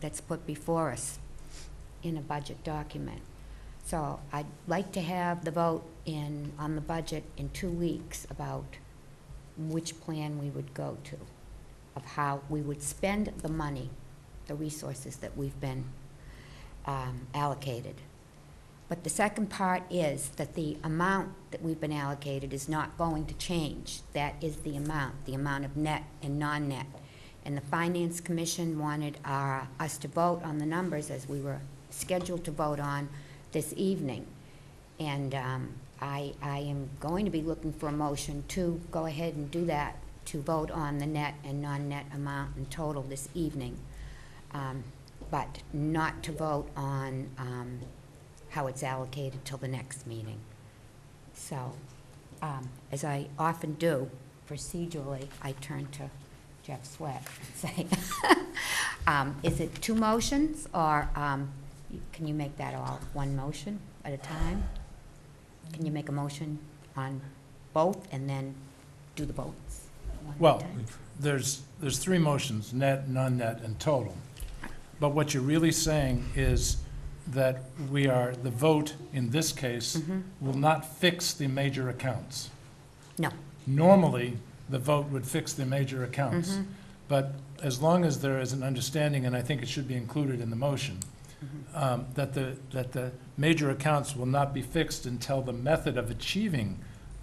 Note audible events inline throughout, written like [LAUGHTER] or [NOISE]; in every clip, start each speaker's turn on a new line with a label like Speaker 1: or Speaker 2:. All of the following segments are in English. Speaker 1: that's put before us in a budget document. So I'd like to have the vote in, on the budget in two weeks about which plan we would go to, of how we would spend the money, the resources that we've been um, allocated. But the second part is that the amount that we've been allocated is not going to change. That is the amount, the amount of net and non-net. And the Finance Commission wanted our, us to vote on the numbers as we were scheduled to vote on this evening. And um, I, I am going to be looking for a motion to go ahead and do that, to vote on the net and non-net amount in total this evening. Um, But not to vote on um, how it's allocated till the next meeting. So, um, as I often do procedurally, I turn to Jeff Sweat and say, [LAUGHS] um, is it two motions, or um, you- can you make that all one motion at a time? Can you make a motion on both and then do the votes? one at a
Speaker 2: Well,
Speaker 1: time?
Speaker 2: there's, there's three motions, net, non-net, and total. But what you're really saying is that we are, the vote in this case
Speaker 1: Mhm.
Speaker 2: will not fix the major accounts.
Speaker 1: No.
Speaker 2: Normally, the vote would fix the major accounts.
Speaker 1: Mhm.
Speaker 2: But as long as there is an understanding, and I think it should be included in the motion, um, that the, that the major accounts will not be fixed until the method of achieving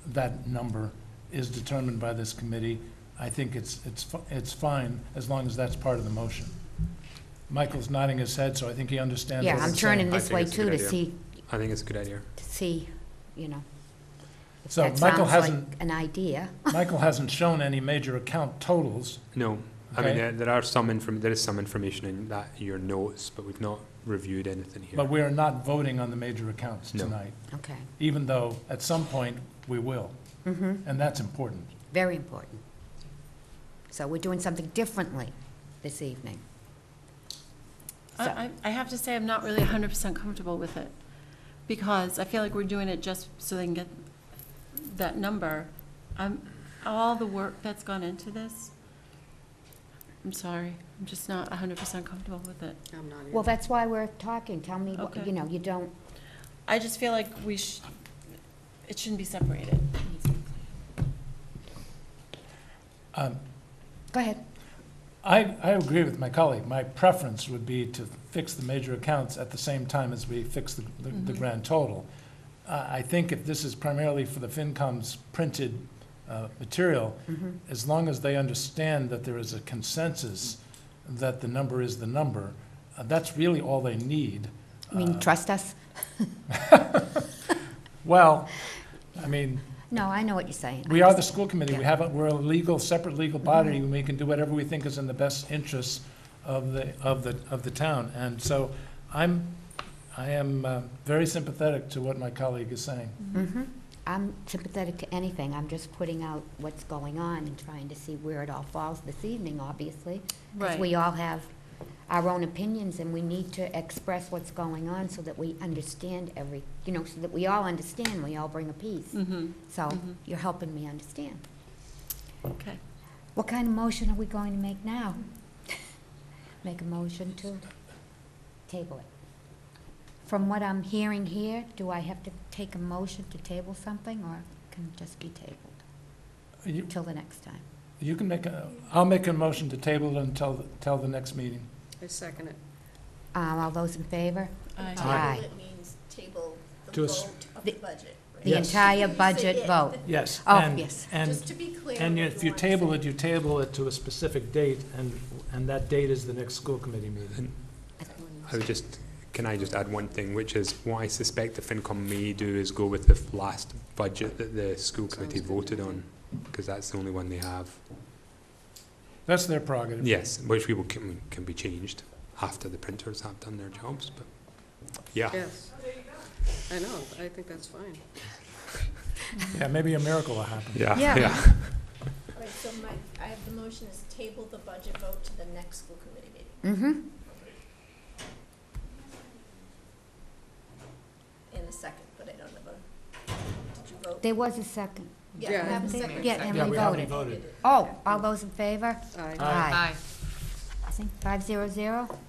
Speaker 2: that number is determined by this committee, I think it's, it's, fi- it's fine, as long as that's part of the motion. Michael's nodding his head, so I think he understands what
Speaker 1: Yeah, I'm
Speaker 2: I'm saying.
Speaker 1: turning
Speaker 3: I
Speaker 1: this
Speaker 3: think
Speaker 1: way
Speaker 3: it's a
Speaker 1: too
Speaker 3: good
Speaker 1: to
Speaker 3: idea.
Speaker 1: see,
Speaker 3: I think it's a good idea.
Speaker 1: to see, you know. if
Speaker 2: So
Speaker 1: that
Speaker 2: Michael
Speaker 1: sounds
Speaker 2: hasn't-
Speaker 1: like An idea.
Speaker 2: Michael hasn't shown any major account totals,
Speaker 3: No, I
Speaker 2: Okay.
Speaker 3: mean, there, there are some inform, there is some information in that, your notes, but we've not reviewed anything
Speaker 2: but
Speaker 3: here.
Speaker 2: we are not voting on the major accounts
Speaker 3: No.
Speaker 2: tonight,
Speaker 1: Okay.
Speaker 2: even though at some point we will,
Speaker 1: Mm-hmm.
Speaker 2: and that's important.
Speaker 1: Very important. So we're doing something differently this evening.
Speaker 4: I,
Speaker 1: So-
Speaker 4: I- I have to say, I'm not really hundred percent comfortable with it, because I feel like we're doing it just so they can get that number. I'm, all the work that's gone into this, I'm sorry, I'm just not hundred percent comfortable with it.
Speaker 5: I'm not
Speaker 1: Well, that's why we're talking. Tell me, what-
Speaker 4: Okay.
Speaker 1: you know, you don't,
Speaker 4: I just feel like we sh, it shouldn't be separated.
Speaker 2: Um,
Speaker 1: go ahead.
Speaker 2: I, I agree with my colleague. My preference would be to fix the major accounts at the same time as we fix the, the-
Speaker 1: Mm-hmm.
Speaker 2: the
Speaker 4: Mhm.
Speaker 2: grand total. Uh, I think if this is primarily for the FinCom's printed uh, material,
Speaker 1: Mhm.
Speaker 2: as long as they understand that there is a consensus that the number is the number, uh, that's really all they need.
Speaker 1: I mean,
Speaker 2: Uh,
Speaker 1: trust us?
Speaker 2: Well, I mean,
Speaker 1: No, I know what you're saying.
Speaker 2: we are the school committee. We
Speaker 1: Yeah. Mm-hmm.
Speaker 2: have, a- we're a legal, separate legal body, and we can do whatever we think is in the best interests of the, of the, of the town. And so I'm, I am uh, very sympathetic to what my colleague is saying.
Speaker 1: hmm I'm sympathetic to anything. I'm just putting out what's going on and trying to see where it all falls this evening, obviously. Because we
Speaker 4: Right,
Speaker 1: all have our own opinions and we need to express what's going on so that we understand every, you know, so that we all understand, we all bring a piece.
Speaker 4: mm-hmm,
Speaker 1: So
Speaker 4: Mhm.
Speaker 1: you're helping me understand.
Speaker 4: okay.
Speaker 1: What kind of motion are we going to make now? [LAUGHS] Make a motion to table it. From what I'm hearing here, do I have to take a motion to table something, or can it just be tabled
Speaker 2: You,
Speaker 1: till the next time?
Speaker 2: you can make a, I'll make a motion to table it until, until the next meeting.
Speaker 5: I second it.
Speaker 1: Um, All those in favor?
Speaker 4: I-
Speaker 2: Aye.
Speaker 6: Table, it means table
Speaker 2: To
Speaker 6: the
Speaker 2: a s-
Speaker 6: vote of the
Speaker 1: The-
Speaker 6: budget. right?
Speaker 1: The
Speaker 2: Yes.
Speaker 1: entire
Speaker 6: You say
Speaker 1: budget
Speaker 6: it.
Speaker 1: vote?
Speaker 2: Yes.
Speaker 1: Oh,
Speaker 7: And-
Speaker 1: yes.
Speaker 7: And,
Speaker 6: Just to be clear.
Speaker 7: and
Speaker 6: what
Speaker 7: if you
Speaker 6: want to
Speaker 7: table
Speaker 6: say.
Speaker 7: it, you table it to a specific date, and, and that date is the next school committee meeting.
Speaker 3: I would just, can I just add one thing, which is what I suspect the FinCom may do is go with the f- last budget that the school committee
Speaker 5: good.
Speaker 3: voted on, because that's the only one they have.
Speaker 2: That's their prerogative.
Speaker 3: Yes, which we will, can, can be changed after the printers have done their jobs, but, yeah.
Speaker 5: Yes. I know, I think that's fine.
Speaker 2: Yeah, maybe a miracle will happen.
Speaker 3: Yeah,
Speaker 1: Yeah.
Speaker 3: yeah.
Speaker 6: Right, so my, I have the motion is table the budget vote to the next school committee meeting.
Speaker 1: Mm-hmm.
Speaker 6: In a second, but I don't know about, did you vote?
Speaker 1: There was a second.
Speaker 6: Yeah, I have a second.
Speaker 1: Yeah, and
Speaker 7: Yeah,
Speaker 1: we
Speaker 7: we haven't
Speaker 1: voted.
Speaker 7: voted.
Speaker 1: Oh, all those in favor?
Speaker 5: Aye.
Speaker 7: Aye.
Speaker 1: I think five zero zero?